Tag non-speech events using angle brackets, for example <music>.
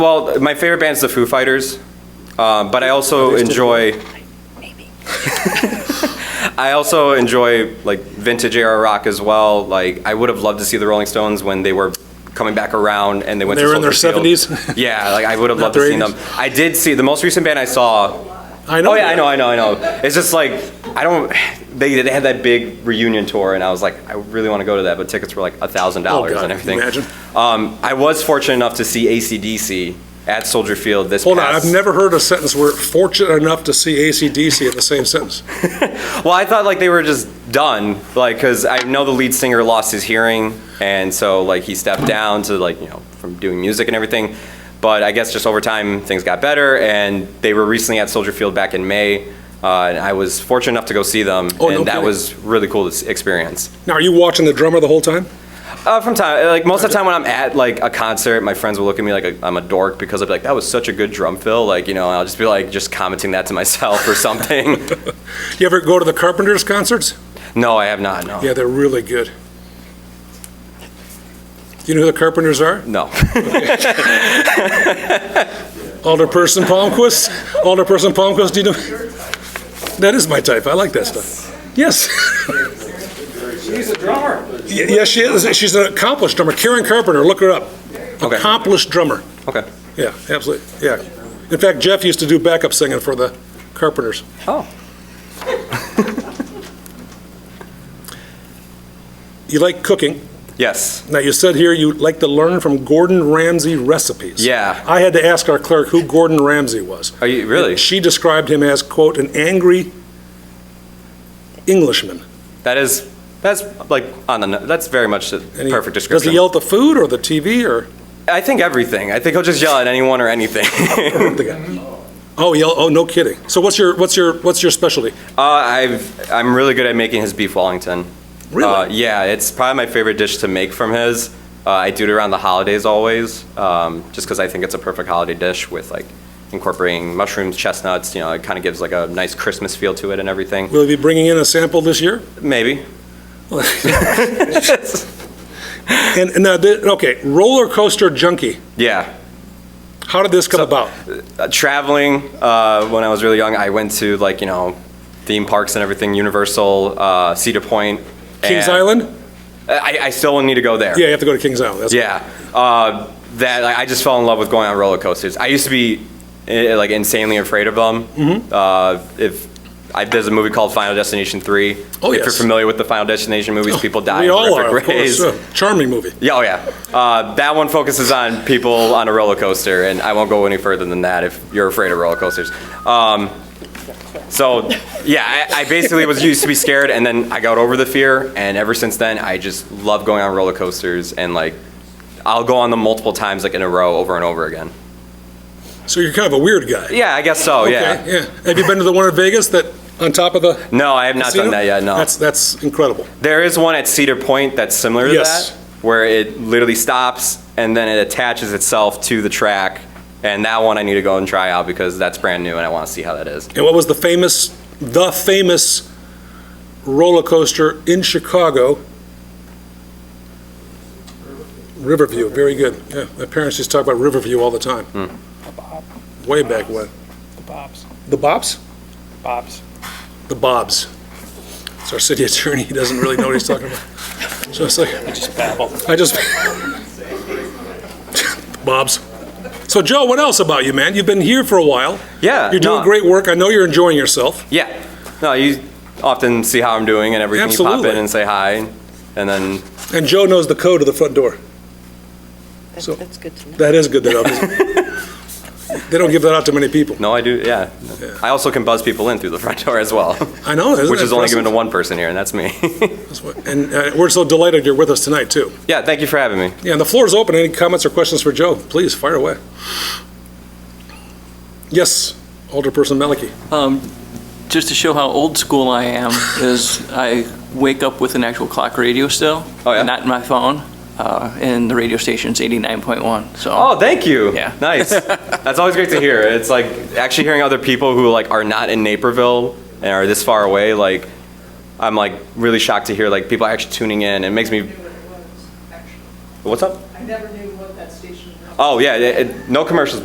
Well, my favorite band's the Foo Fighters, uh, but I also enjoy. <laughs> I also enjoy like vintage era rock as well. Like I would have loved to see the Rolling Stones when they were coming back around and they went. They to were in their Soldier Field. 70s? Yeah, like I would have loved to their see them. 80s? I did see the most recent band I saw I know. Oh yeah, I that. know, I know, I know. It's just like I don't. They they had that big reunion tour, and I was like, I really want to go to that, but tickets were like a thousand dollars Oh, God, and everything. can you Um, I was fortunate enough to see ACDC at Soldier Field this. Hold on, past, I've never heard a sentence where fortunate enough to see AC/DC in the same sentence. Well, I thought like they were just done, like because I know the lead singer lost his hearing, and so like he stepped down to like you know from doing music and everything. But I guess just over time things got better, and they were recently at Soldier Field back in May, uh, and I was fortunate enough to go see them, Oh, no and that kidding. was really cool to s- experience. Now, are you watching the drummer the whole time? Uh, from time, like most of the time when I'm at like a concert, my friends will look at me like a, I'm a dork because I'll be like, "That was such a good drum fill," like you know, and I'll just be like just commenting that to <laughs> myself or <laughs> something. You ever go to the Carpenters concerts? no, I have not. No, Yeah, they're really good. Do you know who the Carpenters are? no. Alderperson <laughs> Palmquist? Alderperson Palmquist, do you know? That is my type. I like that stuff. <laughs> Yes. She's a drummer. Yes, she is. She's an accomplished drummer. Karen Carpenter, look her up. Okay. Accomplished drummer. okay. Yeah, absolutely. Yeah. In fact, Jeff used to do backup singing for the Carpenters. Oh, You like cooking. yes. Now, you said here you like to learn from Gordon Ramsay recipes. Yeah. I had to ask our clerk who Gordon Ramsay was. Are you really? She described him as, quote, "an angry Englishman." That is that's like on the no- that's very much the And he- perfect Does description. he yell at the food or the TV or? <coughs> I think everything. I think he'll just yell at anyone or anything. <laughs> the guy? Oh, yell, oh, no kidding. So what's your, what's your, what's your specialty? uh, I've I'm really good at making his beef Wellington. Uh, Really? yeah, it's probably my favorite dish to make from his. Uh, I do it around the holidays always, um, just because I think it's a perfect holiday dish with like incorporating mushrooms, chestnuts. You know, it kind of gives like a nice Christmas feel to it and everything. Will he be bringing in a sample this year? Maybe. <laughs> And, and now, the- okay, roller coaster junkie. <laughs> Yeah. How did this come about? Uh, traveling uh, when I was really young, I went to like you know theme parks and everything, Universal, uh, Cedar Point, Kings and- Island? I, I still need to go there. Yeah, you have to go to Kings Island. That's- Yeah. Uh, that like, I just fell in love with going on roller coasters. I used to be eh, like insanely afraid of them. Mm-hmm. Uh, if I, there's a movie called Final Destination Three. Oh, if yes. Oh, you're familiar with the Final Destination movies, people die We in all horrific are, of ways. course. yeah. Charming movie. Yeah, oh yeah. Uh, that one focuses on people on a roller coaster, and I won't go any further than that if you're afraid of roller coasters. Um, so, yeah, I, I basically was used to be scared, and then I got over the fear, and ever since then, I just love going on roller coasters, and like, I'll go on them multiple times, like in a row, over and over again. So you're kind of a weird guy. Yeah, I guess so. Oh, Yeah. Okay, yeah. Have you been to the one in Vegas that, on top of the? No, I have not casino? done that yet. No. That's, that's incredible. There is one at Cedar Point that's similar to Yes. that, where it literally stops and then it attaches itself to the track. And that one I need to go and try out because that's brand new and I want to see how that is. And what was the famous, the famous roller coaster in Chicago? Riverview, very good. Yeah, my parents used to talk about Riverview all the time. Hmm. Way back when. The Bob's. The Bobs? Bob's. The Bobs. It's our city <laughs> attorney, he doesn't really know what he's talking about. So it's like, Just babble. I just. <laughs> Bob's. So, Joe, what else about you, man? You've been here for a while. Yeah, You're doing no. great work. I know you're enjoying yourself. Yeah. No, you often see how I'm doing and everything. You pop Absolutely. in and say hi. And then, And Joe knows the code of the front door. That's, So- that's good to know. That is good. That obviously. they don't give that out to many people. no, I do, yeah. I also can buzz people in through the front door as well, I know. <laughs> Isn't which that is only given to impressive? one person here, and that's me. <laughs> That's what- And uh, we're so delighted you're with us tonight, too. yeah, thank you for having me. Yeah, and the floor is open. Any comments or questions for Joe? Please fire away. Yes, Alderperson Malicki. Um, just to show how old school I <laughs> am, is I wake up with an actual clock radio still. Oh, yeah? Not my phone, uh, and the radio station's 89.1, so. Oh, thank you. Yeah. Nice. That's always great to hear. It's like actually hearing other people who like are not in Naperville and are this far away. Like, I'm like really shocked to hear like people actually tuning in. It makes me. knew what it was, actually. What's up? I never knew what that station was. Oh yeah, it, it- no commercials.